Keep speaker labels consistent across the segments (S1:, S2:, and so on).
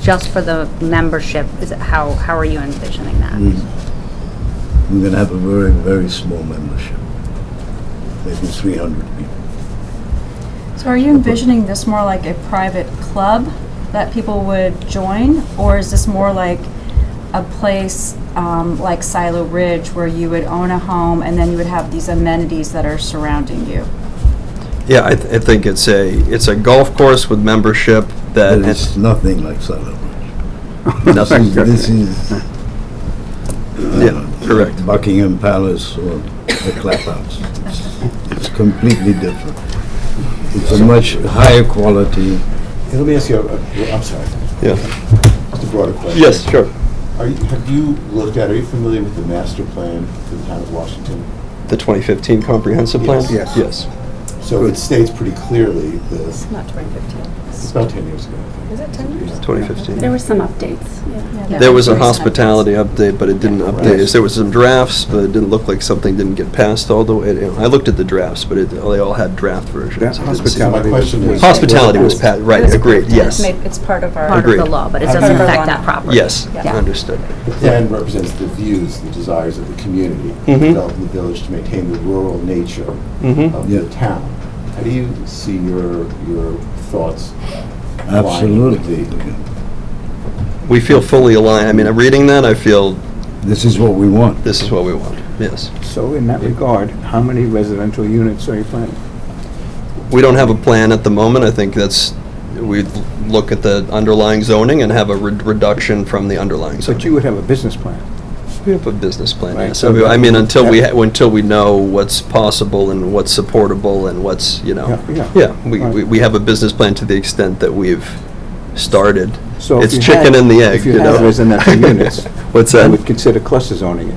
S1: just for the membership? Is it, how, how are you envisioning that?
S2: Mm.
S3: We're going to Hmm. have a very, very small membership, maybe 300 people.
S4: So are you envisioning this more like a private club that people would join? Or is this more like a place um, like Silo Ridge where you would own a home and then you would have these amenities that are surrounding you?
S5: Yeah, I, th- I think it's a, it's a golf course with membership that
S3: But it's
S5: has
S3: nothing like Silent Bridge.
S5: Uh, nothing.
S3: This is uh,
S5: Yeah, correct.
S3: Buckingham Palace or the Clap House. It's completely different. It's a much higher quality.
S6: Let me ask you, a- a- I'm sorry,
S5: Yeah.
S6: just a broader question.
S5: Yes, sure.
S6: Are you, have you looked at, are you familiar with the master plan for the town of Washington?
S5: The 2015 comprehensive plan?
S6: Yes.
S5: Yes.
S6: So it states pretty clearly the,
S7: Not 2015.
S6: it's about ten years ago.
S7: Is it 10 years?
S6: Yeah.
S5: 2015.
S7: There were some updates, yeah.
S5: There was a hospitality update, but it didn't update. us. There was some drafts, but it didn't look like something didn't get passed, although it, I looked at the drafts, but it, they all had draft versions.
S2: Yeah,
S5: I didn't see-
S6: So my question is.
S5: Hospitality was passed, right, agreed, yes.
S7: It's part of our.
S1: Part of the
S5: Agreed.
S1: law, but it
S7: Part of
S1: doesn't
S7: our
S1: affect
S7: law.
S1: that property?
S5: Yes,
S1: Yeah.
S5: understood.
S6: The plan represents the views, the desires of the community,
S5: Mhm.
S6: developing the village to maintain the rural nature
S5: Mhm.
S6: of
S3: Yeah.
S6: the town. How do you see your, your thoughts? aligning with
S3: Absolutely.
S6: the-
S5: We feel fully aligned. I mean, reading that, I feel
S3: This is what we want.
S5: this is what we want, yes.
S2: So in that regard, how many residential units are you planning?
S5: We don't have a plan at the moment. I think that's, we look at the underlying zoning and have a re- reduction from the underlying
S2: But
S5: zoning.
S2: you would have a business plan.
S5: We have a business plan,
S2: Right,
S5: yeah. So,
S2: so-
S5: I mean, until we, ha- until we know what's possible and what's supportable and what's, you know.
S2: Yeah, yeah.
S5: Yeah, we,
S2: Right.
S5: we- we have a business plan to the extent that we've started.
S2: So if
S5: It's
S2: you
S5: chicken
S2: had-
S5: and the egg,
S2: If you
S5: you
S2: had
S5: know.
S2: residential units,
S5: What's
S2: I
S5: that?
S2: would consider cluster zoning it.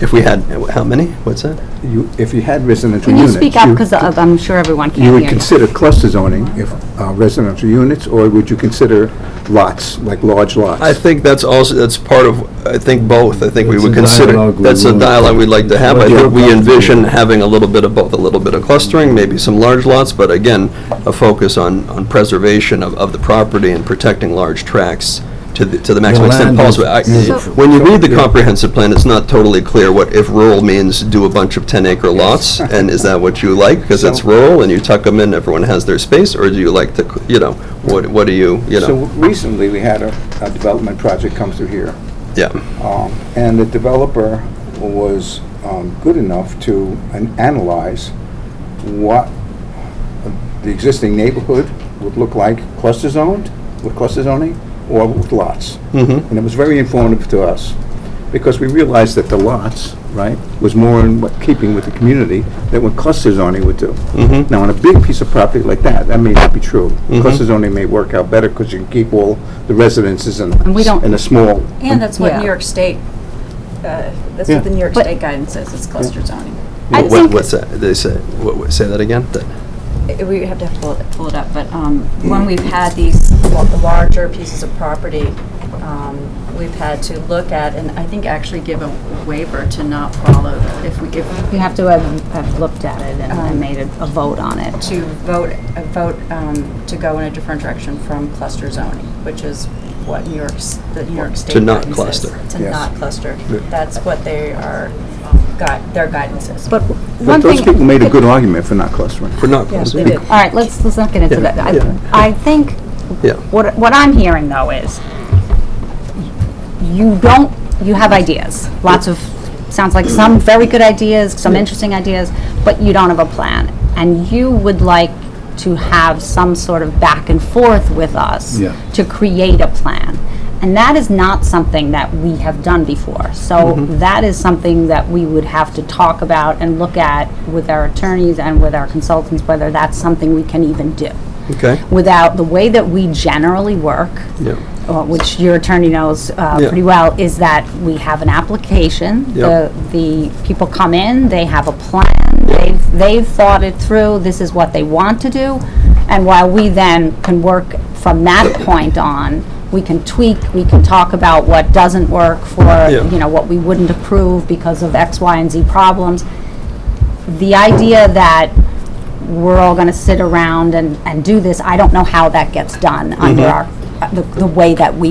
S5: If we had, how many? What's that?
S2: You, if you had residential
S1: Can you
S2: units.
S1: speak up, because I'm sure everyone can
S2: You
S1: hear
S2: would
S1: you.
S2: consider cluster zoning if uh, residential units, or would you consider lots, like large lots?
S5: I think that's also, that's part of, I think both, I think we
S3: It's
S5: would
S3: a
S5: consider,
S3: dialogue we
S5: that's a
S3: want.
S5: dialogue we'd like to have. I
S3: What
S5: think
S3: you're
S5: we
S3: comfortable
S5: envision
S3: with.
S5: having a little bit of both, a little bit of clustering, maybe some large lots, but again, a focus on, on preservation of, of the property and protecting large tracts to the, to the maximum extent
S3: land is
S5: possible. I-
S3: beautiful.
S5: When you read the comprehensive plan, it's not totally clear what if rural means do a bunch of 10-acre lots, and is that what you like? Because it's
S2: So-
S5: rural and you tuck them in, everyone has their space, or do you like the, c- you know, what, what do you, you
S2: So
S5: know?
S2: recently, we had a, a development project come through here.
S5: Yeah.
S2: Um, And the developer was um, good enough to an- analyze what the existing neighborhood would look like cluster zoned, with cluster zoning, or with lots.
S5: Mhm.
S2: And it was very informative to us, because we realized that the lots, right, was more in what- keeping with the community than what cluster zoning would do. Now, on a big piece of property like that, that may not be true. Cluster zoning may work out better, because you can keep all the residences in
S1: And we don't-
S2: in a small
S4: And that's
S1: Yeah.
S4: what New York State, uh, that's
S2: Yeah.
S4: what the New York
S1: But-
S4: State guidance says, it's cluster zoning.
S1: I
S5: What-
S1: think-
S5: What's that? They say, what, what- say that again? That-
S4: I- We have to have to pull it, pull it up, but um,
S5: Mm.
S4: when we've had these la- larger pieces of property, um, we've had to look at, and I think actually give a waiver to not follow, if we, if,
S1: You have to have have looked at it and- and made a a vote on it.
S4: to vote, a vote um, to go in a different direction from cluster zoning, which is what New York's, the New York State.
S5: not
S4: guidance is.
S5: cluster.
S4: To
S2: Yes.
S4: not cluster.
S5: Yeah.
S4: That's what they are, um, gui- their guidance is.
S1: But
S2: But
S1: one
S2: those
S1: thing...
S2: people made a good argument for not clustering.
S5: We're not
S4: Yeah,
S5: close.
S4: they did.
S1: All right, let's, let's not get into
S5: Yeah,
S1: that.
S5: yeah.
S1: I- I think,
S5: Yeah.
S1: what, what I'm hearing though is, you don't, you have ideas, lots of, sounds like some very good ideas, some interesting ideas, but you don't have a plan. And you would like to have some sort of back and forth with us
S3: Yeah.
S1: to create a plan. And that is not something that we have done before. So
S5: Mm-hmm.
S1: that is something that we would have to talk about and look at with our attorneys and with our consultants, whether that's something we can even do.
S5: Okay.
S1: Without, the way that we generally work,
S5: Yeah.
S1: uh, which your attorney knows uh,
S5: Yeah.
S1: pretty well, is that we have an application.
S5: Yeah.
S1: The the people come in, they have a plan, they've, they've thought it through, this is what they want to do. And while we then can work from that point on, we can tweak, we can talk about what doesn't work for,
S5: Yeah.
S1: you know, what we wouldn't approve because of X, Y, and Z problems. The idea that we're all going to sit around and, and do this, I don't know how that gets done under our uh, the the way that we